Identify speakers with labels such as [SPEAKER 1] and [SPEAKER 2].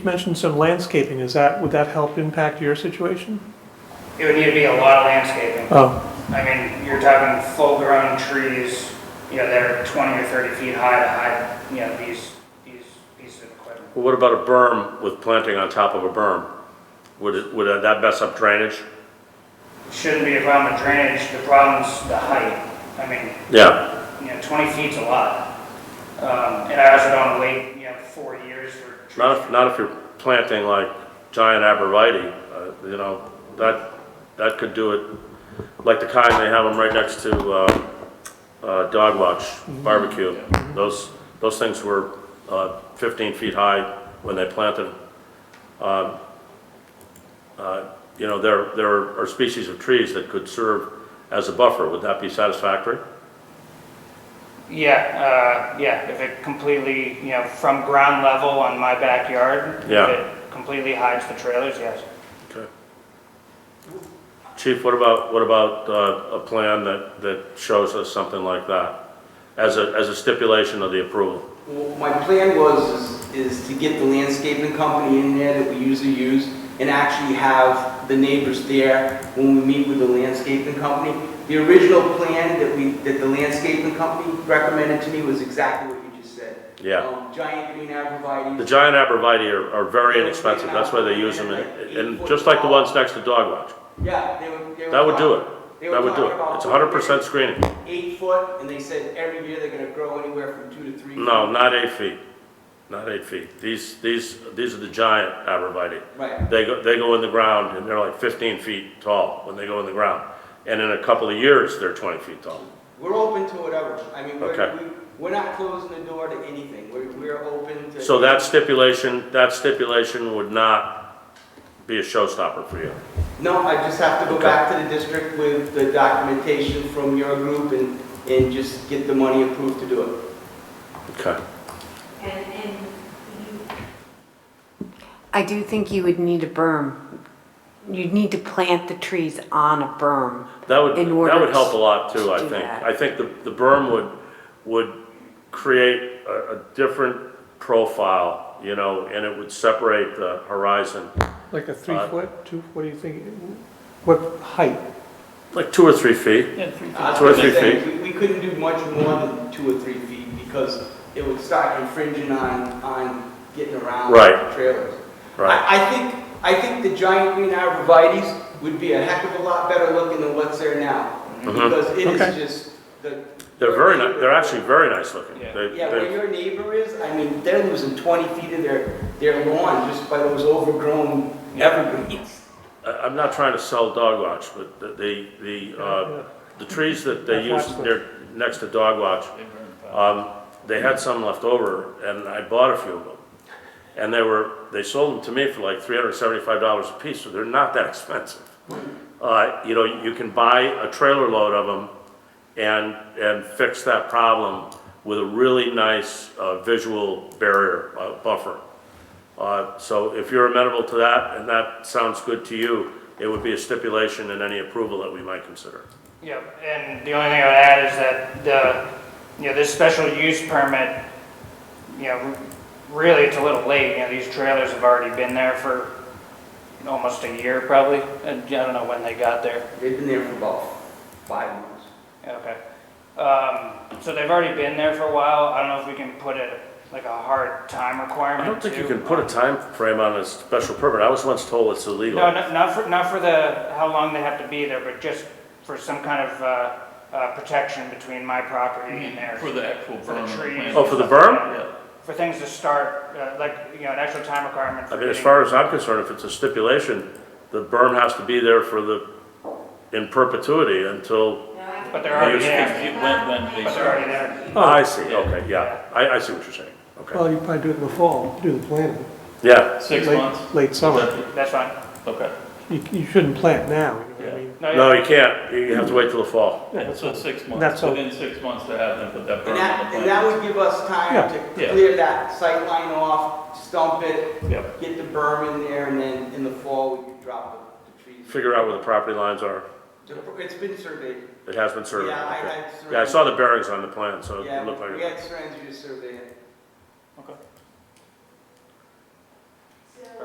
[SPEAKER 1] mentioned some landscaping, is that, would that help impact your situation?
[SPEAKER 2] It would need to be a lot of landscaping.
[SPEAKER 1] Oh,
[SPEAKER 2] I mean, you're talking full-grown trees, you know, that are 20 or 30 feet high to hide, you know, these, these pieces of equipment.
[SPEAKER 3] Well, what about a berm with planting on top of a berm? Would, it- would that mess up drainage?
[SPEAKER 2] Shouldn't be a problem with drainage, the problem's the height. I mean,
[SPEAKER 3] Yeah,
[SPEAKER 2] you know, 20 feet's a lot. Um, And I also don't wait, you know, four years for trees.
[SPEAKER 3] not if, not if you're planting like giant arborvitae, uh, you know, that, that could do it, like the kind they have them right next to, uh, uh, Dog Watch Barbecue. Those, those things were, uh, fifteen feet high when they planted. them. Um, uh, You know, there, there are species of trees that could serve as a buffer. Would that be satisfactory?
[SPEAKER 2] Yeah, uh, yeah, if it completely, you know, from ground level on my backyard.
[SPEAKER 3] Yeah.
[SPEAKER 2] If it completely hides the trailers, yes.
[SPEAKER 3] Okay. Chief, what about, what about uh, a plan that, that shows us something like that as a, as a stipulation of the approval?
[SPEAKER 4] Well, My plan was, is is to get the landscaping company in there that we usually use and actually have the neighbors there when we meet with the landscaping company. The original plan that we, that the landscaping company recommended to me was exactly what you just said.
[SPEAKER 3] Yeah.
[SPEAKER 4] Um, Giant green
[SPEAKER 3] The
[SPEAKER 4] arborvitae.
[SPEAKER 3] giant arborvitae are, are very inexpensive, that's why they use them, in- and just like the ones next to Dog Watch.
[SPEAKER 4] Yeah, they would. they were
[SPEAKER 3] That would do
[SPEAKER 4] talking- they
[SPEAKER 3] it,
[SPEAKER 4] were
[SPEAKER 3] that would do
[SPEAKER 4] talking
[SPEAKER 3] it.
[SPEAKER 4] about
[SPEAKER 3] It's hundred percent screening.
[SPEAKER 4] Eight foot, and they said every year they're gonna grow anywhere from two to three.
[SPEAKER 3] No, not eight feet, not eight feet. These, these, these are the giant arborvitae.
[SPEAKER 4] Right.
[SPEAKER 3] They go, they go in the ground and they're like fifteen feet tall when they go in the ground. And in a couple of years, they're twenty feet tall.
[SPEAKER 4] We're open to whatever. I mean,
[SPEAKER 3] Okay.
[SPEAKER 4] we're, we- we're not closing the door to anything. We're, we're open to.
[SPEAKER 3] So that stipulation, that stipulation would not be a showstopper for you.
[SPEAKER 4] No, I just have to go
[SPEAKER 3] Okay.
[SPEAKER 4] back to the district with the documentation from your group and, and just get the money approved to do it.
[SPEAKER 3] Okay.
[SPEAKER 5] And, and you,
[SPEAKER 6] I do think you would need a berm. You'd need to plant the trees on a berm.
[SPEAKER 3] That would,
[SPEAKER 6] In
[SPEAKER 3] that would
[SPEAKER 6] order
[SPEAKER 3] help a lot too,
[SPEAKER 6] to
[SPEAKER 3] I
[SPEAKER 6] do
[SPEAKER 3] think.
[SPEAKER 6] that.
[SPEAKER 3] I think the, the berm would, would create a, a different profile, you know, and it would separate the horizon,
[SPEAKER 1] like a three foot, two, what do you think? What height?
[SPEAKER 3] like two or three feet.
[SPEAKER 4] I was
[SPEAKER 3] Two or three
[SPEAKER 4] gonna say, We we couldn't do much more than two or three feet because it would start infringing on, on getting around
[SPEAKER 3] Right.
[SPEAKER 4] trailers.
[SPEAKER 3] Right.
[SPEAKER 4] I, I think, I think the giant green arborvitaes would be a heck of a lot better looking than what's there now.
[SPEAKER 3] Mhm.
[SPEAKER 4] Because it
[SPEAKER 1] Okay.
[SPEAKER 4] is just the.
[SPEAKER 3] They're very ni, they're actually very nice looking.
[SPEAKER 2] Yeah.
[SPEAKER 3] They-
[SPEAKER 4] Yeah,
[SPEAKER 3] they-
[SPEAKER 4] where your neighbor is, I mean, they're losing 20 feet of their, their lawn just by those overgrown evergreens.
[SPEAKER 3] I- I'm not trying to sell dog watch, but the, the, the, uh, the trees that they
[SPEAKER 1] I've
[SPEAKER 3] use
[SPEAKER 1] watched them.
[SPEAKER 3] near, next to dog watch, um, they had some left over, and I bought a few of them. And they were, they sold them to me for like three hundred and seventy-five dollars a piece, so they're not that expensive. Uh, you know, you can buy a trailer load of them and, and fix that problem with a really nice, uh, visual barrier, uh, buffer. Uh, So if you're amenable to that, and that sounds good to you, it would be a stipulation in any approval that we might consider.
[SPEAKER 2] Yeah, and the only thing I would add is that the, you know, this special use permit, you know, really it's a little late, you know, these trailers have already been there for almost a year probably, and I don't know when they got there.
[SPEAKER 4] They've been there for about five months.
[SPEAKER 2] Okay. Um, so they've already been there for a while, I don't know if we can put it, like a hard time
[SPEAKER 3] I
[SPEAKER 2] requirement
[SPEAKER 3] don't think you
[SPEAKER 2] too. Uh,
[SPEAKER 3] can put a time frame on a special permit. I was once told it's
[SPEAKER 2] No,
[SPEAKER 3] illegal.
[SPEAKER 2] no- not for, not for the, how long they have to be there, but just for some kind of, uh, uh, protection between my property and theirs.
[SPEAKER 7] Mm-hmm. For the actual
[SPEAKER 2] For the
[SPEAKER 7] berm. and
[SPEAKER 2] trees.
[SPEAKER 7] plant.
[SPEAKER 3] Oh, for the berm?
[SPEAKER 7] Yeah.
[SPEAKER 2] for things to start, uh, like, you know, an actual time requirement
[SPEAKER 3] I
[SPEAKER 2] for
[SPEAKER 3] mean, as
[SPEAKER 2] getting-
[SPEAKER 3] far as I'm concerned, if it's a stipulation, the berm has to be there for the, in perpetuity until,
[SPEAKER 5] no, I
[SPEAKER 2] But
[SPEAKER 5] can-
[SPEAKER 2] they're already
[SPEAKER 3] Use-
[SPEAKER 2] there,
[SPEAKER 7] It went when they-
[SPEAKER 2] but they're already there.
[SPEAKER 3] I see, okay, yeah. I, I see what you're saying, okay.
[SPEAKER 2] Oh.
[SPEAKER 1] Well, you probably do it in the fall, do the planting.
[SPEAKER 3] Yeah,
[SPEAKER 7] Six
[SPEAKER 1] Late-
[SPEAKER 7] months?
[SPEAKER 1] Late summer.
[SPEAKER 3] Oh.
[SPEAKER 2] That's fine.
[SPEAKER 7] Okay.
[SPEAKER 1] You, you shouldn't plant now, you know what I mean?
[SPEAKER 3] no,
[SPEAKER 2] Oh, yeah.
[SPEAKER 3] you can't. You have to wait till the fall.
[SPEAKER 7] Yeah, so six
[SPEAKER 1] That's
[SPEAKER 7] months,
[SPEAKER 1] all.
[SPEAKER 7] within six months to have them put that
[SPEAKER 4] And
[SPEAKER 7] berm on the
[SPEAKER 4] that,
[SPEAKER 7] plant.
[SPEAKER 4] and that would give us
[SPEAKER 1] Yeah.
[SPEAKER 4] time to
[SPEAKER 7] Yeah.
[SPEAKER 4] clear that sight line off, stump it,
[SPEAKER 7] Yep.
[SPEAKER 4] get the berm in there, and then in the fall, we could drop the- the trees.
[SPEAKER 3] Figure out where the property lines are.
[SPEAKER 4] The- It's been surveyed.
[SPEAKER 3] It has been surveyed.
[SPEAKER 4] Yeah,
[SPEAKER 3] okay.
[SPEAKER 4] I had.
[SPEAKER 3] Yeah, I
[SPEAKER 4] surveyed-
[SPEAKER 3] saw the bearings on the plan, so it
[SPEAKER 4] Yeah,
[SPEAKER 3] looked like.
[SPEAKER 4] we had Seren do survey it.
[SPEAKER 2] Okay.